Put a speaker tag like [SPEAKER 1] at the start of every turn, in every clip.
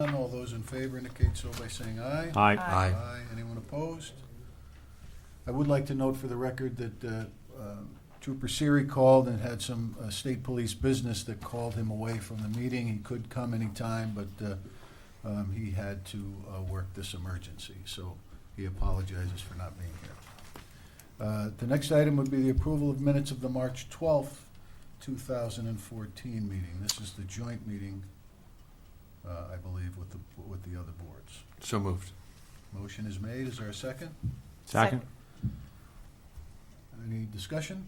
[SPEAKER 1] None, all those in favor indicate so by saying aye.
[SPEAKER 2] Aye.
[SPEAKER 3] Aye.
[SPEAKER 1] Anyone opposed? I would like to note for the record that uh, um, Trooper Siri called and had some uh, state police business that called him away from the meeting. He could come anytime, but uh, um, he had to uh, work this emergency, so he apologizes for not being here. Uh, The next item would be the approval of minutes of the March twelfth, two thousand and fourteen meeting. This is the joint meeting, uh, I believe, with the, with the other boards.
[SPEAKER 3] So moved.
[SPEAKER 1] Motion is made. Is there a second?
[SPEAKER 2] Second.
[SPEAKER 1] Any discussion?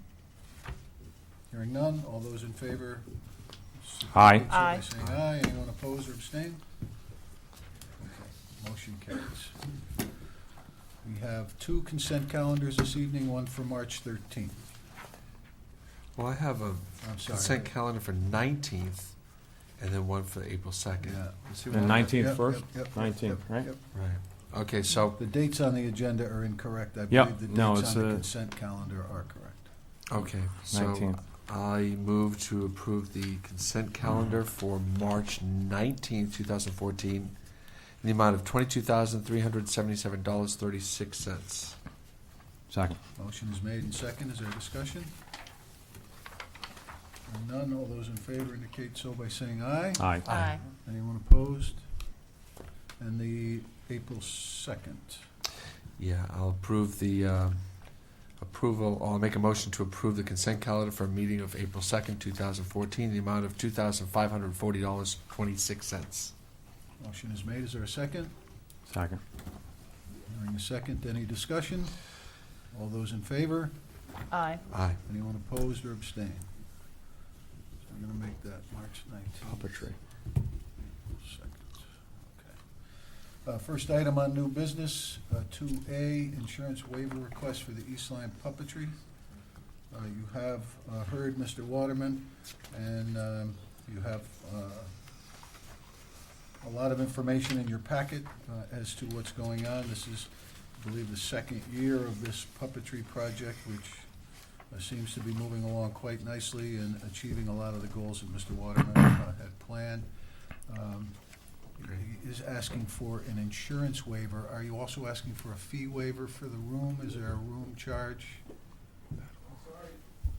[SPEAKER 1] Hearing none. All those in favor?
[SPEAKER 2] Aye.
[SPEAKER 1] indicate so by
[SPEAKER 4] Aye.
[SPEAKER 1] Saying aye. Anyone opposed or abstain? Okay, Motion carries. We have two consent calendars this evening, one for March 13th.
[SPEAKER 3] Well, I have a
[SPEAKER 1] I'm sorry.
[SPEAKER 3] consent calendar for 19th and then one for April 2nd.
[SPEAKER 1] Yeah.
[SPEAKER 3] You see
[SPEAKER 2] The
[SPEAKER 3] what I mean?
[SPEAKER 1] Yep,
[SPEAKER 2] 19th first?
[SPEAKER 1] yep, yep, yep,
[SPEAKER 2] 19th,
[SPEAKER 1] yep,
[SPEAKER 2] right?
[SPEAKER 1] yep.
[SPEAKER 3] Right. Okay, so,
[SPEAKER 1] The dates on the agenda are incorrect. I
[SPEAKER 2] Yep,
[SPEAKER 1] believe the
[SPEAKER 2] no,
[SPEAKER 1] dates
[SPEAKER 2] it's
[SPEAKER 1] on the
[SPEAKER 2] a-
[SPEAKER 1] consent calendar are correct.
[SPEAKER 3] okay, so
[SPEAKER 2] 19th.
[SPEAKER 3] I move to approve the consent calendar for March 19th, 2014, in the amount of $22,377.36.
[SPEAKER 2] Second.
[SPEAKER 1] Motion is made and second. Is there discussion? Hearing none. All those in favor indicate so by saying aye.
[SPEAKER 2] Aye.
[SPEAKER 4] Aye.
[SPEAKER 1] Anyone opposed? And the April 2nd.
[SPEAKER 3] Yeah, I'll approve the um, approval, I'll make a motion to approve the consent calendar for a meeting of April 2nd, 2014, the amount of $2,540.26.
[SPEAKER 1] Motion is made. Is there a second?
[SPEAKER 2] Second.
[SPEAKER 1] Hearing a second, any discussion? All those in favor?
[SPEAKER 4] Aye.
[SPEAKER 3] Aye.
[SPEAKER 1] Anyone opposed or abstain? So I'm going to make that March 19th.
[SPEAKER 2] Puppetry.
[SPEAKER 1] Second. Okay. Uh, First item on new business, uh, two A, insurance waiver request for the East Line Puppetry. Uh, You have uh, heard Mr. Waterman, and um, you have uh, a lot of information in your packet uh, as to what's going on. This is, I believe, the second year of this puppetry project, which uh, seems to be moving along quite nicely and achieving a lot of the goals that Mr. Waterman uh, had planned. Um, he Is asking for an insurance waiver. Are you also asking for a fee waiver for the room? Is there a room charge?
[SPEAKER 5] Sorry,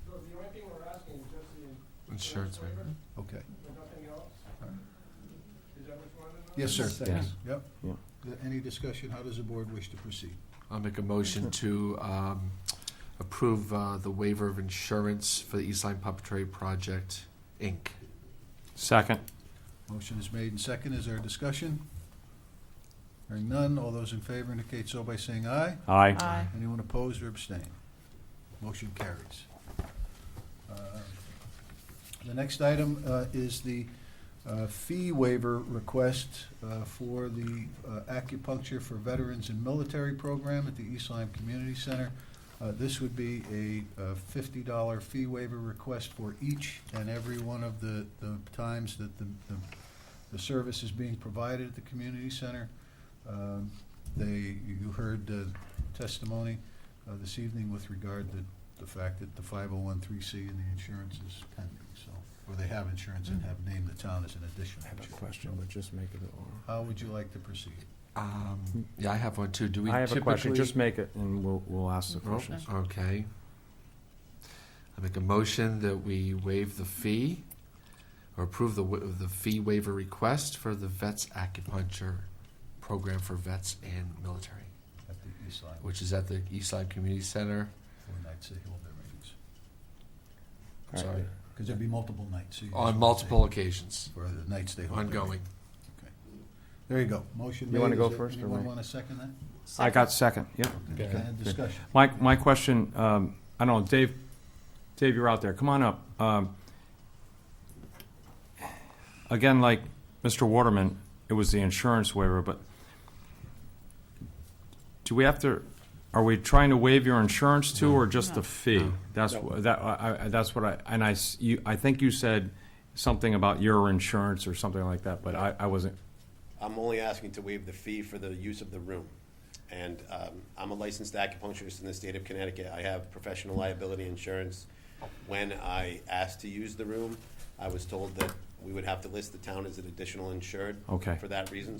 [SPEAKER 5] so the only thing we're asking is just the
[SPEAKER 3] Insurance waiver.
[SPEAKER 1] Okay.
[SPEAKER 5] there's nothing else?
[SPEAKER 1] All right.
[SPEAKER 5] Is that what you wanted? to know?
[SPEAKER 1] Yes, sir.
[SPEAKER 2] Yes.
[SPEAKER 1] Yep.
[SPEAKER 2] Yeah.
[SPEAKER 1] Th- Any discussion? How does the board wish to proceed?
[SPEAKER 3] I'll make a motion to um, approve uh, the waiver of insurance for the Eastline Puppetry Project, Inc.
[SPEAKER 2] Second.
[SPEAKER 1] Motion is made and second. Is there discussion? Hearing none. All those in favor indicate so by saying aye.
[SPEAKER 2] Aye.
[SPEAKER 4] Aye.
[SPEAKER 1] Anyone opposed or abstain? Motion carries. Uh, The next item uh, is the uh, fee waiver request uh, for the uh, acupuncture for veterans and military program at the East Lyme Community Center. Uh, This would be a uh, fifty-dollar fee waiver request for each and every one of the, the times that the, the- the service is being provided at the community center. Um, They, you heard uh, testimony uh, this evening with regard to the fact that the 501(c) and the insurance is pending, so, or they have insurance and have named the town as an additional. insurer.
[SPEAKER 2] but just make it.
[SPEAKER 1] How would you like to proceed?
[SPEAKER 3] Um, Yeah, I have one too. Do we
[SPEAKER 2] I have a question,
[SPEAKER 3] typically-
[SPEAKER 2] just make it, and we'll, we'll ask the
[SPEAKER 3] Oh,
[SPEAKER 2] questions.
[SPEAKER 3] Okay. I make a motion that we waive the fee or approve the, wa- the fee waiver request for the Vets Acupuncture Program for Vets and Military,
[SPEAKER 1] At the East Lyme,
[SPEAKER 3] which is at the Eastside Community Center.
[SPEAKER 1] for nights they hold their meetings.
[SPEAKER 2] All right.
[SPEAKER 3] Sorry,
[SPEAKER 1] Because there'd be multiple nights. so you just
[SPEAKER 3] on
[SPEAKER 1] wanna
[SPEAKER 3] multiple
[SPEAKER 1] say-
[SPEAKER 3] occasions,
[SPEAKER 1] For the nights they hold their meetings.
[SPEAKER 3] ongoing.
[SPEAKER 1] There you go. Motion made.
[SPEAKER 2] You wanna
[SPEAKER 1] Is
[SPEAKER 2] go
[SPEAKER 1] there-
[SPEAKER 2] first or
[SPEAKER 1] Anyone
[SPEAKER 2] me?
[SPEAKER 1] want to second that?
[SPEAKER 2] I got second, yeah.
[SPEAKER 1] Okay,
[SPEAKER 3] Okay.
[SPEAKER 1] Discussion.
[SPEAKER 2] My, my question, um, I don't know, Dave, Dave, you're out there, come on up. Um, Again, like Mr. Waterman, it was the insurance waiver, but do we have to, are we trying to waive your insurance too, or just the fee? That's, wha- that, I, I, that's what I, and I, s- you, I think you said something about your insurance or something like that, but I, I wasn't,
[SPEAKER 6] I'm only asking to waive the fee for the use of the room. And um, I'm a licensed acupuncturist in the state of Connecticut. I have professional liability insurance. When I asked to use the room, I was told that we would have to list the town as an additional insured
[SPEAKER 2] Okay.
[SPEAKER 6] for that reason,